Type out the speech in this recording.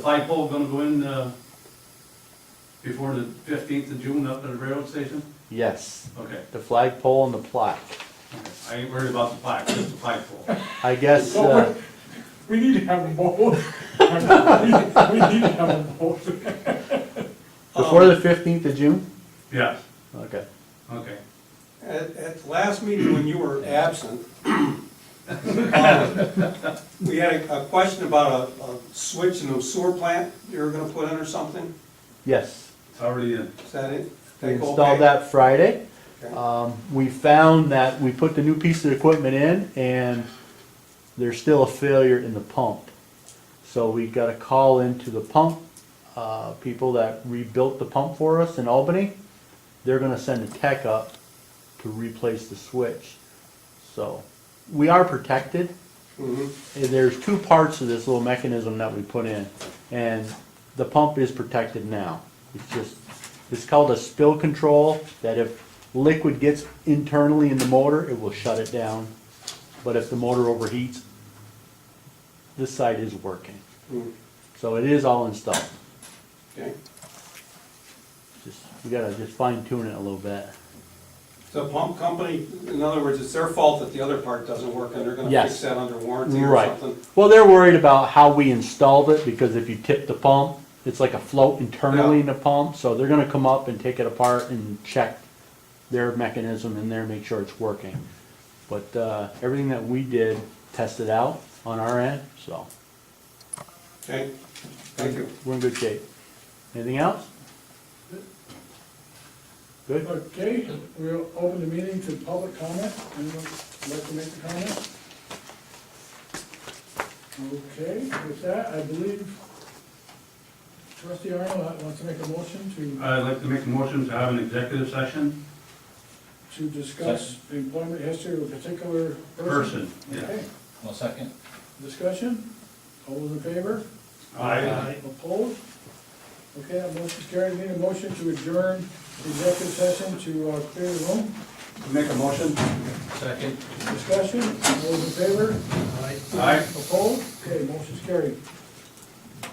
The pipe hole gonna go in, uh, before the fifteenth of June up at the railroad station? Yes, Okay, the flagpole and the plaque. okay. I ain't worried about the pipe, just the pipe hole. I guess, uh, We need to have them both. We we need to have them both. before the fifteenth of June? Yes, Okay. okay. At, at the last meeting, when you were absent, um, we had a, a question about a, a switch in a sewer plant you were gonna put in or something, Yes, It's already in. is that it? we Think okay? installed that Friday. Okay. Um, we found that we put the new piece of equipment in and there's still a failure in the pump. So we got a call into the pump, uh, people that rebuilt the pump for us in Albany. They're gonna send a tech up to replace the switch. So, we are protected. Mhm. And there's two parts to this little mechanism that we put in, and the pump is protected now. It's just, it's called a spill control, that if liquid gets internally in the motor, it will shut it down. But if the motor overheats, this side is working. Mm, So it is all installed. Okay, Just, we gotta just fine tune it a little bit. so pump company, in other words, it's their fault that the other part doesn't work and they're gonna Yes. fix that under warranty or Right. something? Well, they're worried about how we installed it, because if you tip the pump, it's like a float internally in the pump, so they're gonna come up and take it apart and check their mechanism in there, make sure it's working. But, uh, everything that we did tested out on our end, so Okay, thank you. we're in good shape. Anything else? Good? Okay, we'll open the meeting to public comment. Anyone like to make a comment? Okay, with that, I believe trustee Arnold wants to make a motion to, I'd like to make a motion to have an executive session, to discuss employment history of a particular person. person, yeah. Okay, One second. discussion? All those in favor? Aye. Opposed? Okay, that motion's carried. Need a motion to adjourn the executive session to uh, clear the room. Make a motion? Second. Discussion, all those in favor? Aye. Opposed? Okay, motion's carried.